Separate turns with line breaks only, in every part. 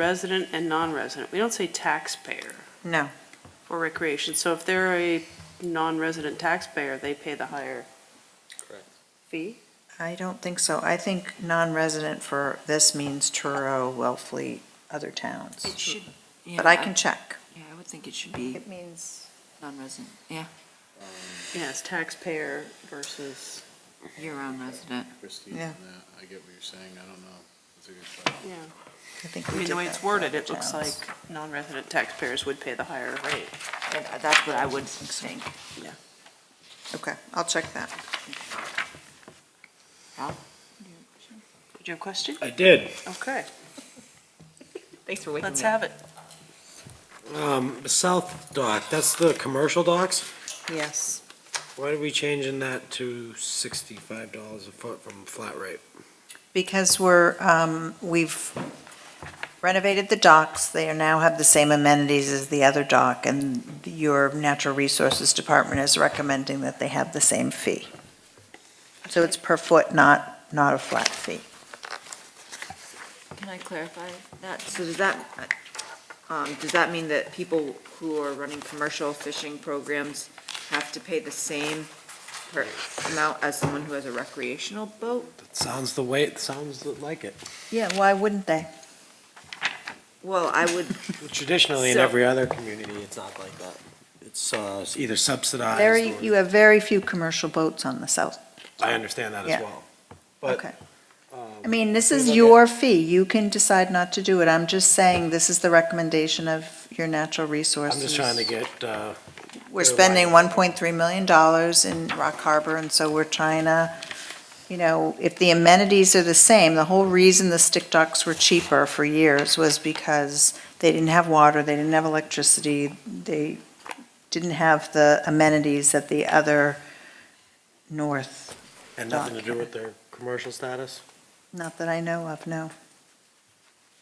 resident and non-resident. We don't say taxpayer
No,
for recreation. So if they're a non-resident taxpayer, they pay the higher
Correct.
fee?
I don't think so. I think non-resident for this means Truro, Wellfleet, other
It
towns.
should, yeah.
But I can check.
Yeah, I would think it should be
It means,
non-resident, yeah,
Yes, taxpayer versus,
year-round resident.
Christine, on
Yeah.
that, I get what you're saying, I don't know. It's a good question.
yeah.
I think
I
we
mean,
did
the way
that
it's
for
worded,
other
it looks like
towns.
non-resident taxpayers would pay the higher rate.
And that's what I would think.
Okay, I'll check that.
Did you have a question?
I did.
Okay,
Thanks for waiting.
let's have it.
Um, the south dock, that's the commercial docks.
Yes.
Why are we changing that to sixty-five dollars a foot from flat rate?
Because we're, um, we've renovated the docks. They now have the same amenities as the other dock, and your Natural Resources Department is recommending that they have the same fee. So it's per foot, not, not a flat fee.
Can I clarify that? So does that, um, does that mean that people who are running commercial fishing programs have to pay the same per amount as someone who has a recreational boat?
That sounds the way, it sounds like it.
Yeah, why wouldn't they?
Well, I would,
Traditionally, in
So-
every other community, it's not like that. It's, uh, either subsidized.
Very,
or-
you have very few commercial boats on the south.
I understand that as
Yeah.
well. But,
Okay. I
um,
mean, this is
look at-
your fee. You can decide not to do it. I'm just saying, this is the recommendation of your natural
I'm
resources.
just trying to get, uh,
We're spending 1.3 million dollars in Rock Harbor, and so we're trying to, you know, if the amenities are the same, the whole reason the stick docks were cheaper for years was because they didn't have water, they didn't have electricity, they didn't have the amenities that the other north,
and nothing to do with their commercial status?
not that I know of, no.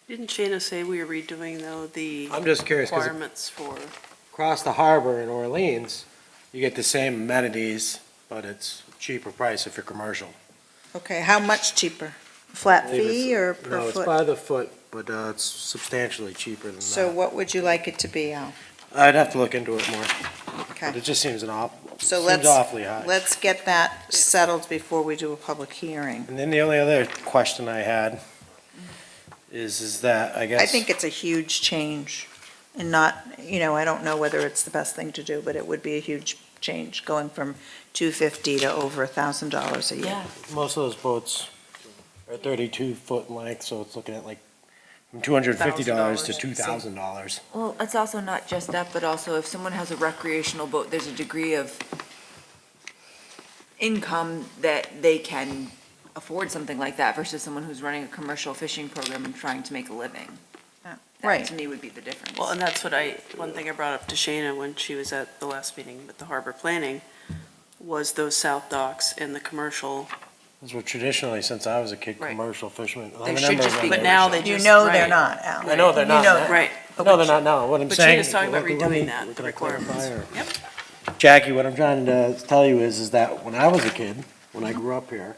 Didn't Shana say we were redoing though the
I'm just curious, because
requirements for,
across the harbor in Orleans, you get the same amenities, but it's cheaper price if you're commercial.
Okay, how much cheaper? Flat
believe it's-
fee or per
No, it's
foot?
by the foot, but uh, it's substantially cheaper than
So
that.
what would you like it to be, Al?
I'd have to look into it more, but
Okay,
it just seems an awful,
So
seems
let's-
awfully high.
let's get that settled before we do a public hearing.
And then the only other question I had is, is that, I guess.
I think it's a huge change and not, you know, I don't know whether it's the best thing to do, but it would be a huge change going from 250 to over $1,000 a year.
yeah,
Most of those boats are thirty-two foot length, so it's looking at like from two hundred and fifty dollars to two thousand dollars.
well, it's also not just that, but also if someone has a recreational boat, there's a degree of income that they can afford something like that versus someone who's running a commercial fishing program and trying to make a living. That
Right,
to me would be the difference.
well, and that's what I, one thing I brought up to Shana when she was at the last meeting with the harbor planning was those south docks and the commercial
That's what traditionally, since I was a kid,
Right.
commercial fishermen. I
They should
remember
just
when
be
But
were
now
shown.
they
you
just.
know they're
right,
not, Al.
I know they're
You
not.
know
that.
Right.
No, they're not, no, what I'm
But
saying.
Shana's talking about
let me- let me-
redoing that,
can
the
I clarify
requirements.
or- Jackie, what I'm trying to tell you is, is that when I was a kid,
Mm-hmm.
when I grew up here,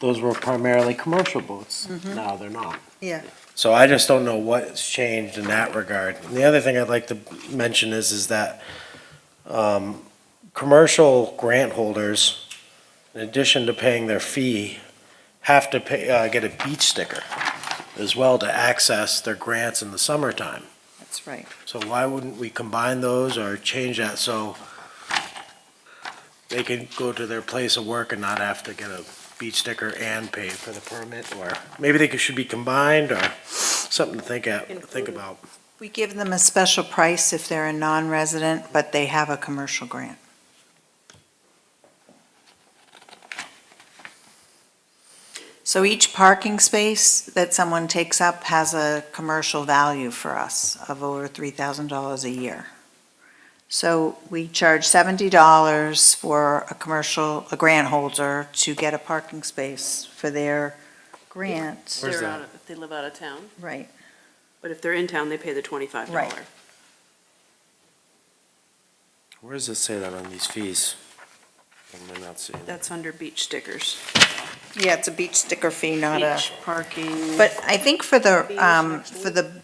those were primarily commercial boats.
Mm-hmm.
Now they're not.
Yeah.
So I just don't know what's changed in that regard. And the other thing I'd like to mention is, is that, um, commercial grant holders, in addition to paying their fee, have to pay, uh, get a beach sticker as well to access their grants in the summertime.
That's right.
So why wouldn't we combine those or change that so they can go to their place of work and not have to get a beach sticker and pay for the permit? Or maybe they could- should be combined or something to think at, think about.
We give them a special price if they're a non-resident, but they have a commercial grant. So each parking space that someone takes up has a commercial value for us of over $3,000 a year. So we charge $70 for a commercial, a grant holder to get a parking space for their grant.
Where's
They're
that?
out of- If they live out of town,
Right.
but if they're in town, they pay the twenty-five dollar.
Right.
Where does it say that on these fees? I'm not seeing it.
That's under beach stickers.
Yeah, it's a beach sticker fee, not a.
Beach parking.
But I think for the,
Beach,
um,
actually.
for the